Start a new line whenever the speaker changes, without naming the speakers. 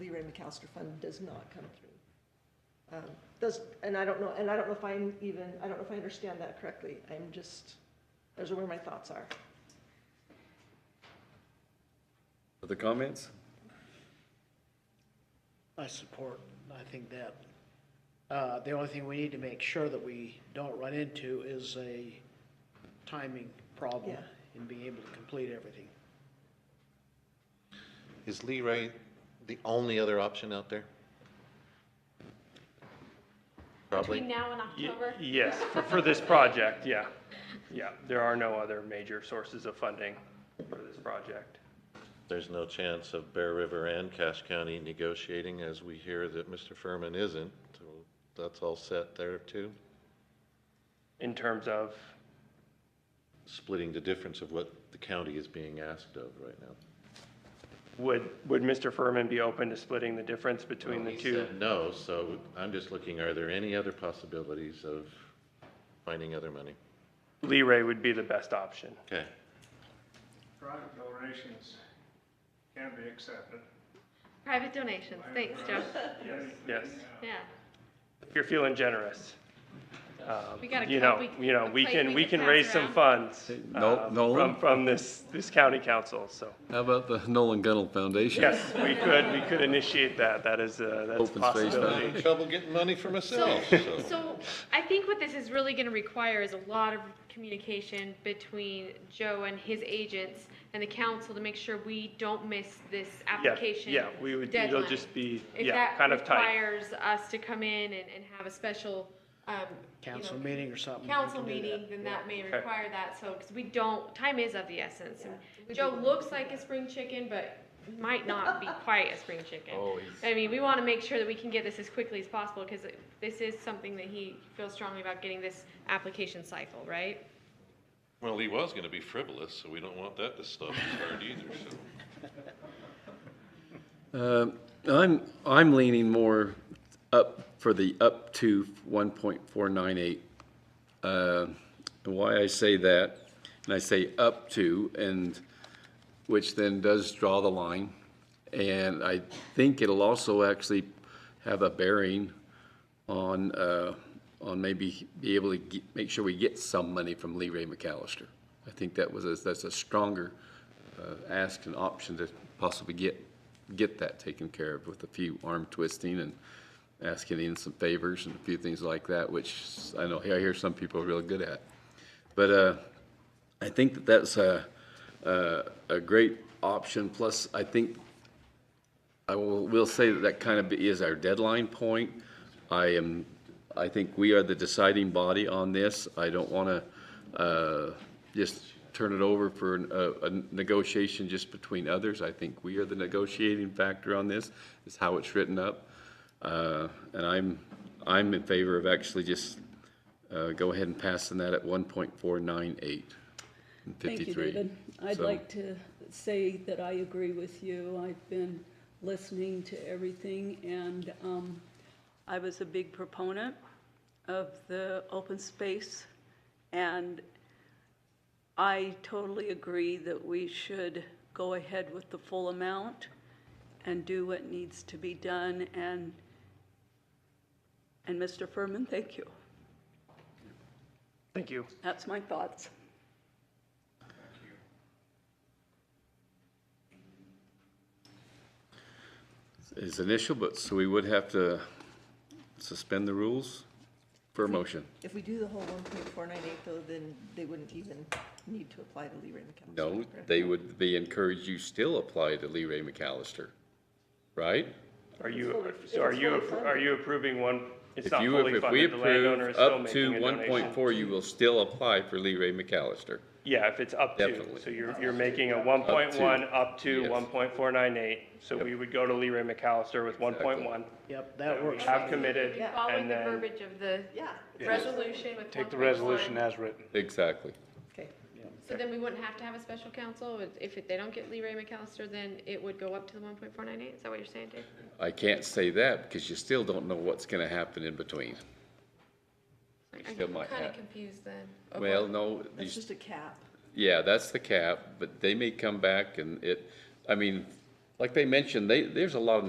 Ray McAllister fund does not come through. Um, Does, and I don't know, and I don't know if I'm even, I don't know if I understand that correctly. I'm just, those are where my thoughts are.
Other comments?
I support, I think that, uh, the only thing we need to make sure that we don't run into is a timing problem
Yeah.
in being able to complete everything.
Is Lee Ray the only other option out there?
Between
Probably.
now and
Ye-
October?
Yes, for, for this project, yeah. Yeah, there are no other major sources of funding for this project.
There's no chance of Bear River and Cache County negotiating, as we hear that Mr. Furman isn't. So That's all set there, too?
In terms of,
Splitting the difference of what the county is being asked of right now.
would, would Mr. Furman be open to splitting the difference between the
He
two?
said No, so I'm just looking, are there any other possibilities of finding other money?
Lee Ray would be the best option.
Okay.
Private donations can be accepted.
Private donations, thanks, Joe.
Yes,
Yeah,
if you're feeling generous. um,
We got a
You
cup
know,
we-
you know,
a
we
plate
can,
we
we
can
can
pass
raise some
around.
funds
Nol-
uh,
Nolan?
from, from this, this county council, so.
How about the Nolan Gunnell Foundation?
Yes, we could, we could initiate that, that is, uh, that's a
Open space
possibility.
value.
Trouble getting money for
so,
myself,
so I think what this is really gonna require is a lot of communication between Joe and his agents and the council to make sure we don't miss this
Yeah,
application
yeah, we would, it'll
deadline.
just be,
If
yeah,
that
kind of tight.
requires us to come in and, and have a special, um, you know,
Council meeting or something. we
council
can do that.
meeting, then that may
Okay.
require that, so, because we don't, time is of the essence. And Joe looks like a spring chicken, but might not be quite a spring chicken.
Oh, he's-
I mean, we want to make sure that we can get this as quickly as possible, because this is something that he feels strongly about getting this application cycle, right?
Well, he was gonna be frivolous, so we don't want that to stop his heart either, so.
Uh, I'm, I'm leaning more up for the up to 1.498. Uh, and Why I say that, and I say up to, and, which then does draw the line. And I think it'll also actually have a bearing on, uh, on maybe be able to ge- make sure we get some money from Lee Ray McAllister. I think that was, a- that's a stronger uh, ask and option to possibly get, get that taken care of with a few arm twisting and asking in some favors and a few things like that, which I know, I hear some people are real good at. But uh, I think that that's a, a a great option, plus I think I will, will say that that kind of is our deadline point. I am, I think we are the deciding body on this. I don't want to, uh, just turn it over for an- a, a negotiation just between others. I think we are the negotiating factor on this, is how it's written up. Uh, and I'm, I'm in favor of actually just, uh, go ahead and passing that at one point four nine eight and
Thank you,
fifty-three.
David. I'd
So-
like to say that I agree with you. I've been listening to everything, and um, I was a big proponent of the open space, and I totally agree that we should go ahead with the full amount and do what needs to be done, and, and Mr. Furman, thank you.
Thank you.
That's my thoughts.
is initial, but so we would have to suspend the rules for a motion.
If we do the whole one point four nine eight though, then they wouldn't even need to apply to Lee Ray McAllister.
No,
correct?
they would be encouraged, you still apply to Lee Ray McAllister, right?
Are you,
fully-
so are
it's
you,
fully
appro-
funded.
are you approving one, it's
If
not
you,
fully
if we
funded, the
approve
landowner is still
up to
making a
one point
donation?
four, you will still apply for Lee Ray McAllister.
Yeah, if it's up to,
Definitely.
so you're, you're making a one point one up to
Yes.
one point four nine eight, so we would go to Leroy McAllister with one point one.
Yep, that
We
works.
have committed,
Following
and
the
then,
verbiage of the
Yeah,
resolution with
Take the
1.1.
resolution as written.
Exactly.
okay.
So then we wouldn't have to have a special council, if- if it- they don't get Lee Ray McAllister, then it would go up to the one point four nine eight, is that what you're saying, Dave?
I can't say that because you still don't know what's gonna happen in between. still might
I'm
have-
kinda confused then. of what-
Well, no, you
That's just a cap.
Yeah, that's the cap, but they may come back and it, I mean, like they mentioned, they, there's a lot of